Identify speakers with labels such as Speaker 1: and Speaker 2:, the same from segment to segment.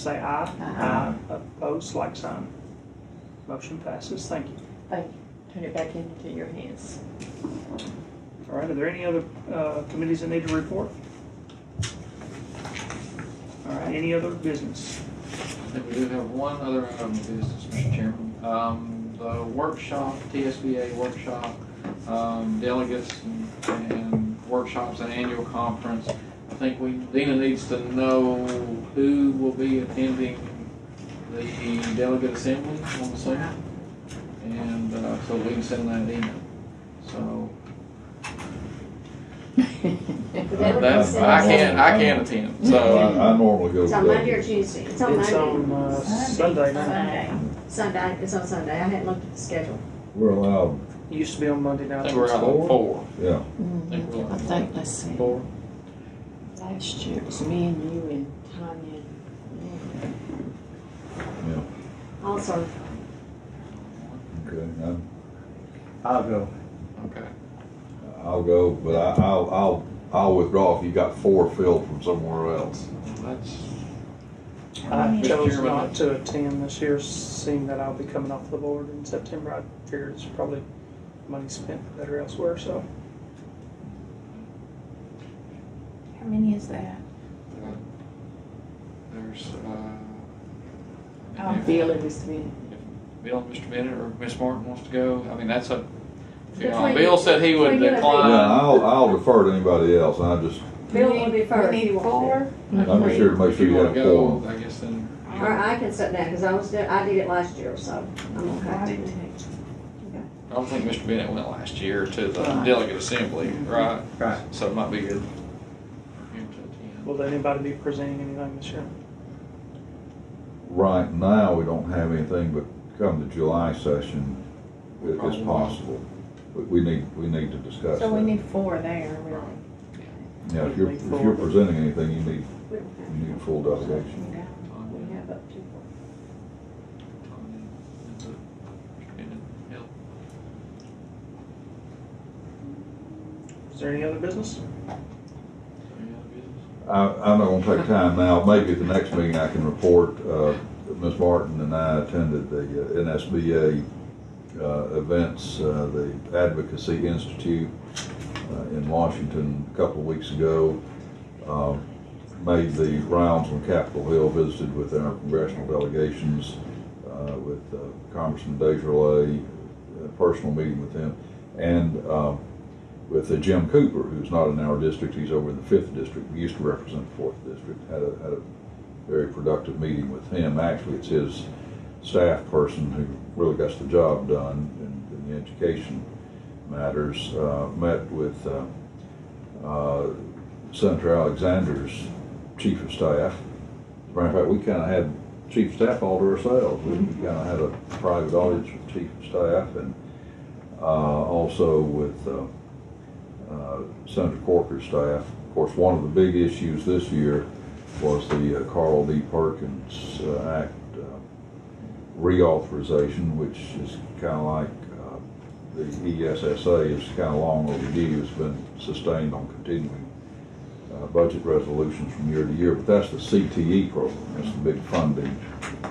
Speaker 1: say aye.
Speaker 2: Aye.
Speaker 1: Opposed, like sign. Motion passes, thank you.
Speaker 2: Thank you. Turn it back into your hands.
Speaker 1: All right, are there any other uh, committees that need to report? All right, any other business?
Speaker 3: I think we do have one other item of business, Mr. Chairman. Um, the workshop, TSBA workshop, um, delegates and- and workshops and annual conference. I think we, Dina needs to know who will be attending the delegate assembly on the seventh. And, uh, so we can send that email. So, uh, that's, I can't, I can't attend, so. uh,
Speaker 4: I I normally go.
Speaker 5: It's on
Speaker 4: with
Speaker 5: Monday or Tuesday. It's on
Speaker 1: It's
Speaker 5: Monday.
Speaker 1: on uh, Sunday night.
Speaker 5: Sunday. Sunday, it's on Sunday. I hadn't looked at the schedule.
Speaker 4: that. We're allowed,
Speaker 1: It used to be on Monday
Speaker 3: I
Speaker 1: night.
Speaker 3: think we're out of four.
Speaker 4: yeah,
Speaker 3: I think we're
Speaker 2: I
Speaker 3: out
Speaker 2: think, let's see,
Speaker 3: four.
Speaker 2: last year it was me and you and Tanya.
Speaker 4: yeah,
Speaker 5: Also,
Speaker 4: okay, I-
Speaker 6: I'll go.
Speaker 3: Okay.
Speaker 4: I'll go, but I, I'll, I'll, I'll withdraw if you got four filled from somewhere else.
Speaker 3: That's,
Speaker 1: I
Speaker 3: Mr.
Speaker 1: chose
Speaker 3: Chairman,
Speaker 1: not to attend this year, seeing that I'll be coming off the board in September. I figured it's probably money spent better elsewhere, so.
Speaker 7: How many is that?
Speaker 3: uh, there's, uh,
Speaker 2: I'm Oh,
Speaker 3: if-
Speaker 2: feeling this minute.
Speaker 3: Bill, Mr. Bennett, or Miss Martin wants to go, I mean, that's a, you know,
Speaker 5: Between-
Speaker 3: Bill said he would
Speaker 5: between you and-
Speaker 4: Yeah,
Speaker 3: decline.
Speaker 4: I'll, I'll refer to anybody else, and I just,
Speaker 5: Bill will be first.
Speaker 7: We need four?
Speaker 4: I'm just here to make
Speaker 3: If
Speaker 4: sure
Speaker 3: you
Speaker 4: you
Speaker 3: wanna
Speaker 4: have
Speaker 3: go,
Speaker 4: four.
Speaker 3: I guess then.
Speaker 5: or I can sit down, because I was, doing- I did it last year, so I'm
Speaker 7: I
Speaker 5: okay.
Speaker 7: didn't take.
Speaker 3: I don't think Mr. Bennett went last year to the delegate assembly, right?
Speaker 6: Right.
Speaker 3: So it might be good. for him to attend.
Speaker 1: Will anybody be presenting anything this year?
Speaker 4: right now, we don't have anything, but come the July session, it- it's
Speaker 3: Probably.
Speaker 4: possible. We, we need, we need to discuss
Speaker 7: So we
Speaker 4: that.
Speaker 7: need four there, really.
Speaker 4: Yeah, if you're, if you're presenting anything, you need,
Speaker 5: We don't have-
Speaker 4: you need full delegation.
Speaker 7: Okay.
Speaker 3: Tanya,
Speaker 5: We have up to four.
Speaker 3: Tanya, and, uh, Mr. Bennett, Bill.
Speaker 1: Is there any other business?
Speaker 3: Any other business?
Speaker 4: I, I'm not gonna take time now, maybe at the next meeting I can report, uh, Ms. Martin and I attended the uh, NSBA, uh, events, uh, the Advocacy Institute, uh, in Washington a couple of weeks ago. Uh, Made the rounds on Capitol Hill, visited with our congressional delegations, uh, with uh, Congressman Desjarlais, a personal meeting with him, and, uh, with uh, Jim Cooper, who's not in our district, he's over in the fifth district, he used to represent the fourth district, had a, had a very productive meeting with him. Actually, it's his staff person who really gets the job done in, in the education matters. Uh, met with, uh, uh, Senator Alexander's chief of staff. As a matter of fact, we kinda had chief of staff all to ourselves. We kinda had a private audience with chief of staff and, uh, also with, uh, uh, Senator Corker's staff. Of course, one of the big issues this year was the uh, Carl D. Perkins uh, Act uh, reauthorization, which is kind of like uh, the E ESSA is kind of long overdue. It's been sustained on continuing uh, budget resolutions from year to year, but that's the CTE program. That's the big funding,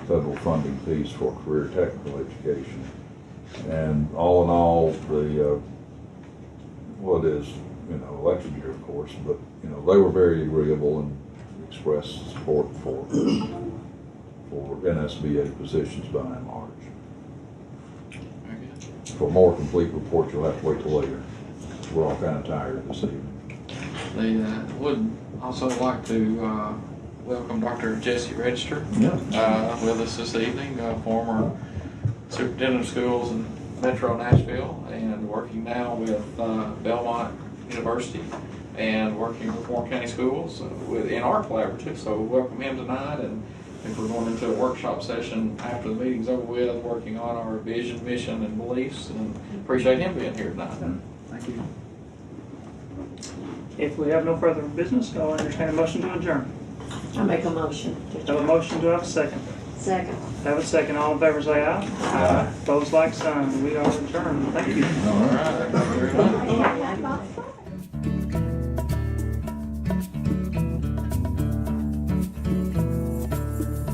Speaker 4: federal funding piece for career technical education. And all in all, the uh, what is, you know, election year, of course, but, you know, they were very agreeable and expressed support for, for NSBA positions by and large.
Speaker 3: Very good.
Speaker 4: For a more complete report, you'll have to wait till later. We're all kind of tired this evening.
Speaker 3: They uh, would also like to uh, welcome Dr. Jesse Register
Speaker 4: Yeah.
Speaker 3: uh, with us this evening, uh, former superintendent of schools in Metro Nashville and working now with uh, Belmont University and working with Warren County Schools uh, with, in our collaborative. So we welcome him tonight and if we're going into a workshop session after the meeting's over with, working on our vision, mission and beliefs and appreciate him being here tonight.
Speaker 6: Thank you.
Speaker 1: If we have no further business, I'll entertain a motion to adjourn.
Speaker 2: I make a motion. to
Speaker 1: Have a motion, do I have a second?
Speaker 5: Second.
Speaker 1: Have a second, all in favor say aye. Aye. Opposed, like sign, we are adjourned, thank you.
Speaker 4: All
Speaker 3: All
Speaker 4: right.
Speaker 3: right, thank you very much.
Speaker 5: Yeah, I thought so.